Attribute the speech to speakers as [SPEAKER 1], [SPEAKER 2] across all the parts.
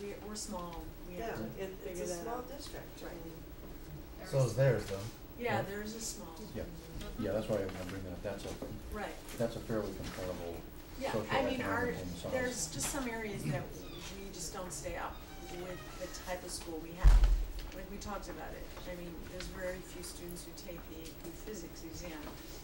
[SPEAKER 1] we, we're small, we
[SPEAKER 2] Yeah,
[SPEAKER 1] have to
[SPEAKER 2] it, it's
[SPEAKER 1] figure
[SPEAKER 2] a
[SPEAKER 1] that
[SPEAKER 2] small
[SPEAKER 1] out.
[SPEAKER 2] district.
[SPEAKER 1] Right. There
[SPEAKER 3] So
[SPEAKER 1] is-
[SPEAKER 3] is theirs though.
[SPEAKER 1] Yeah,
[SPEAKER 3] right?
[SPEAKER 1] theirs is small.
[SPEAKER 4] Yeah.
[SPEAKER 1] Mhm.
[SPEAKER 4] Yeah, that's why I'm I'm bringing up, that's a,
[SPEAKER 1] Right,
[SPEAKER 4] that's a fairly comparable
[SPEAKER 1] yeah, I mean, our,
[SPEAKER 4] socioeconomic and size.
[SPEAKER 1] there's just some areas that we just don't stay up with the type of school we have. Like, we talked about it, I mean, there's very few students who take the AP physics exam,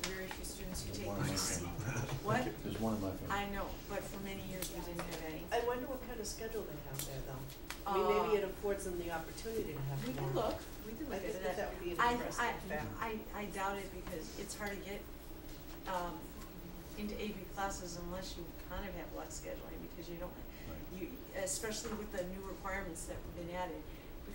[SPEAKER 1] very few students who
[SPEAKER 4] There's
[SPEAKER 1] take
[SPEAKER 4] one in
[SPEAKER 1] the
[SPEAKER 4] my
[SPEAKER 1] C.
[SPEAKER 4] family.
[SPEAKER 1] What?
[SPEAKER 4] There's one in my
[SPEAKER 1] I
[SPEAKER 4] family.
[SPEAKER 1] know, but for many years we didn't have any.
[SPEAKER 2] I wonder what kind of schedule they have there though. I mean, maybe
[SPEAKER 1] Uh,
[SPEAKER 2] it affords them the opportunity to have
[SPEAKER 1] We
[SPEAKER 2] more.
[SPEAKER 1] can look,
[SPEAKER 4] Uh,
[SPEAKER 1] we can
[SPEAKER 2] I
[SPEAKER 1] look
[SPEAKER 2] think
[SPEAKER 1] into
[SPEAKER 2] that
[SPEAKER 1] that.
[SPEAKER 2] that would be an
[SPEAKER 1] I-
[SPEAKER 2] interesting
[SPEAKER 1] I-
[SPEAKER 2] fact.
[SPEAKER 1] I, I doubt it because it's hard to get, um, into AP classes unless you kind of have luck scheduling because you don't,
[SPEAKER 4] Right.
[SPEAKER 1] you, especially with the new requirements that have been added.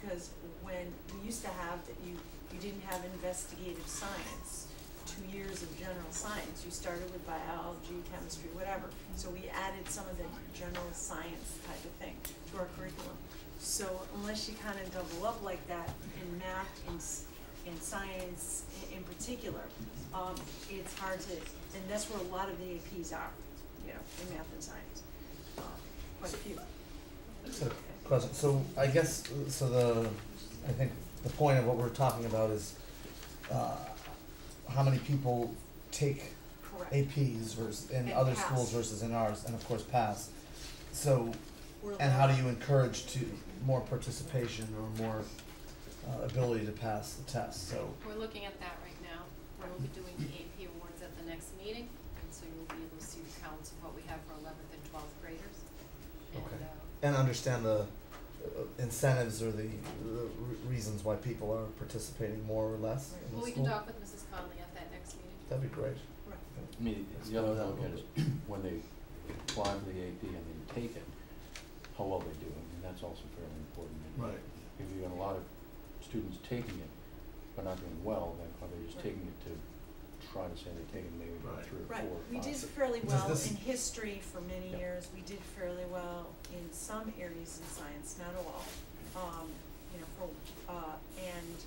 [SPEAKER 1] Because when we used to have that you, you didn't have investigative science, two years of general science, you started with biology, chemistry, whatever. So we added some of the general science type of thing to our curriculum. So unless you kind of double up like that in math and s- in science i- in particular, um, it's hard to, and that's where a lot of the APs are, you know, in math and science. Um, Quite a few.
[SPEAKER 3] So, question, so I guess, uh, so the, I think the point of what we're talking about is, uh, how many people take
[SPEAKER 1] Correct.
[SPEAKER 3] APs versus, in
[SPEAKER 1] And
[SPEAKER 3] other
[SPEAKER 1] pass.
[SPEAKER 3] schools versus in ours, and of course pass. So,
[SPEAKER 1] We're
[SPEAKER 3] and how do
[SPEAKER 1] low.
[SPEAKER 3] you encourage to, more participation or more, uh, ability to pass the test, so.
[SPEAKER 5] We're looking at that right now. We'll be doing the AP awards at the next meeting, and so you'll be able to see the counts of what we have for eleventh and twelfth graders. And,
[SPEAKER 3] Okay.
[SPEAKER 5] uh,
[SPEAKER 3] And understand the uh, incentives or the, the re- reasons why people are participating more or less in the
[SPEAKER 5] well, we can
[SPEAKER 3] school.
[SPEAKER 5] talk with Mrs. Conley at that next meeting.
[SPEAKER 3] That'd be great.
[SPEAKER 1] Right.
[SPEAKER 4] I mean, the
[SPEAKER 3] Explore
[SPEAKER 4] other
[SPEAKER 3] that a
[SPEAKER 4] look at
[SPEAKER 3] little
[SPEAKER 4] is when they apply for the AP and they take it, how well they do, and that's also fairly important. And
[SPEAKER 3] Right.
[SPEAKER 4] If you got a lot of students taking it, but not doing well, then are they just
[SPEAKER 1] Right.
[SPEAKER 4] taking it to try to say they're taking maybe about
[SPEAKER 3] Right.
[SPEAKER 4] three or
[SPEAKER 1] Right,
[SPEAKER 4] four or
[SPEAKER 1] we
[SPEAKER 4] five?
[SPEAKER 1] did fairly
[SPEAKER 3] Does
[SPEAKER 1] well
[SPEAKER 3] this-
[SPEAKER 1] in history for many
[SPEAKER 4] Yeah.
[SPEAKER 1] years, we did fairly well in some areas in science, not all. Um, you know, for, uh, and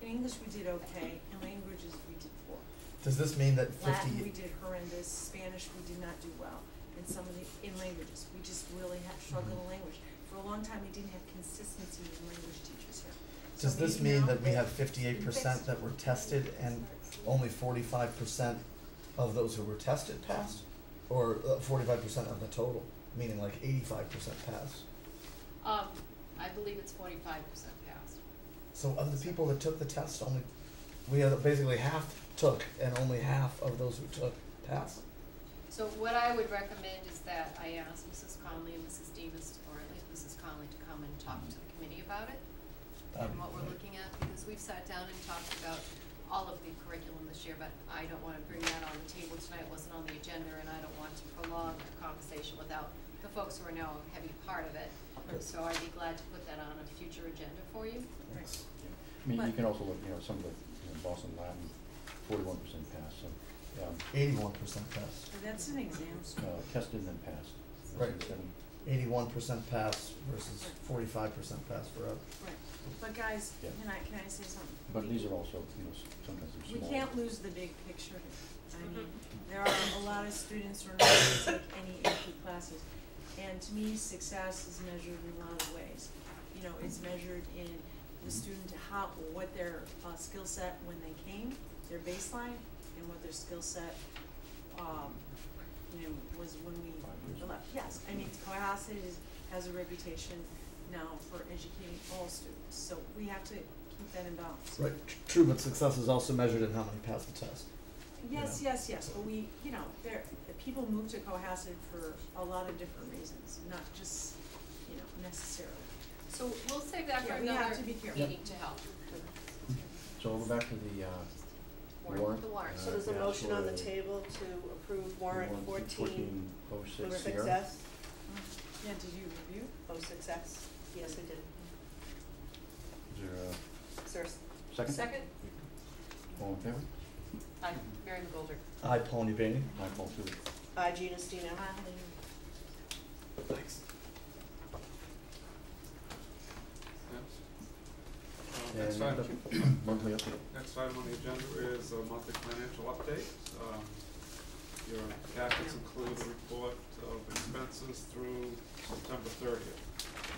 [SPEAKER 1] in English we did okay, in languages we did poor.
[SPEAKER 3] Does this mean that
[SPEAKER 1] Latin we
[SPEAKER 3] fifty,
[SPEAKER 1] did horrendous, Spanish we did not do well, in some of the, in languages, we just really had struggled in
[SPEAKER 3] Mm-hmm.
[SPEAKER 1] language. For a long time, we didn't have consistency in language teachers here. So
[SPEAKER 3] does
[SPEAKER 1] we
[SPEAKER 3] this mean
[SPEAKER 1] now
[SPEAKER 3] that we
[SPEAKER 1] have-
[SPEAKER 3] have fifty-eight percent that were tested and only forty-five percent of those who were tested passed? Or uh, forty-five percent of the total, meaning like eighty-five percent passed?
[SPEAKER 5] Um, I believe it's forty-five percent passed.
[SPEAKER 3] So of the people that took the test, only, we had basically half took and only half of those who took passed.
[SPEAKER 5] So what I would recommend is that I ask Mrs. Conley and Mrs. Demus, or at least Mrs. Conley, to come and talk to the committee about it
[SPEAKER 4] Um,
[SPEAKER 3] That'd
[SPEAKER 5] and
[SPEAKER 3] be
[SPEAKER 5] what we're
[SPEAKER 3] great.
[SPEAKER 5] looking at, because we've sat down and talked about all of the curriculum this year, but I don't wanna bring that on the table tonight, it wasn't on the agenda, and I don't want to prolong the conversation without the folks who are now a heavy part of it.
[SPEAKER 3] Good.
[SPEAKER 5] So I'd be glad to put that on a future agenda for you.
[SPEAKER 3] Thanks.
[SPEAKER 4] Yeah. I mean, you
[SPEAKER 1] But-
[SPEAKER 4] can also look, you know, some of the, you know, Boston Latin, forty-one percent passed, so, um,
[SPEAKER 3] Eighty-one percent passed.
[SPEAKER 1] So That's an exam
[SPEAKER 4] uh, tested and then passed. That's
[SPEAKER 3] Right.
[SPEAKER 4] the seven.
[SPEAKER 3] Eighty-one percent pass versus forty-five percent pass for us.
[SPEAKER 1] Right, but guys,
[SPEAKER 4] Yeah.
[SPEAKER 1] can I, can I say something?
[SPEAKER 4] But
[SPEAKER 1] We-
[SPEAKER 4] these are also, you know, s- sometimes they're
[SPEAKER 1] We
[SPEAKER 4] small.
[SPEAKER 1] can't lose the big picture here. I mean,
[SPEAKER 5] Mhm.
[SPEAKER 1] there are a lot of students who are not gonna take any AP classes. And to me, success is measured in a lot of ways. You know, it's measured in the student, how, what their, uh, skill set when they came, their baseline, and what their skill set, um, you know, was when we
[SPEAKER 4] Five years ago.
[SPEAKER 1] left. Yes, I mean, Cohasset is, has a reputation now for educating all students, so we have to keep that in balance.
[SPEAKER 3] Right, tr- true, but success is also measured in how many pass the test.
[SPEAKER 1] Yes,
[SPEAKER 3] Yeah.
[SPEAKER 1] yes, yes, but we, you know, there, the people move to Cohasset for a lot of different reasons, not just, you know, necessarily.
[SPEAKER 5] So we'll save that for
[SPEAKER 1] Yeah, we have
[SPEAKER 5] another
[SPEAKER 1] to be careful.
[SPEAKER 5] meeting to help.
[SPEAKER 4] So we'll go back to the, uh,
[SPEAKER 5] Warrant, the warrant.
[SPEAKER 2] So there's a
[SPEAKER 4] Yeah,
[SPEAKER 2] motion on the
[SPEAKER 4] so-
[SPEAKER 2] table to approve warrant
[SPEAKER 4] warrant
[SPEAKER 2] fourteen
[SPEAKER 4] 1406
[SPEAKER 2] for
[SPEAKER 4] here.
[SPEAKER 2] success,
[SPEAKER 1] Yeah, did you review?
[SPEAKER 2] oh, success, yes, I did,
[SPEAKER 4] Is there a
[SPEAKER 2] sir,
[SPEAKER 4] second?
[SPEAKER 5] Second,
[SPEAKER 4] All in favor?
[SPEAKER 5] i Mary McGoldrick.
[SPEAKER 3] I, Paul Newbany.
[SPEAKER 4] Aye, all through.
[SPEAKER 2] I, Gina Stino.
[SPEAKER 1] I,
[SPEAKER 3] Thanks.
[SPEAKER 6] Uh, Next
[SPEAKER 4] And
[SPEAKER 6] item,
[SPEAKER 4] monthly update.
[SPEAKER 6] next item on the agenda is a monthly financial update. Um, Your packets include a report of expenses through September thirtieth.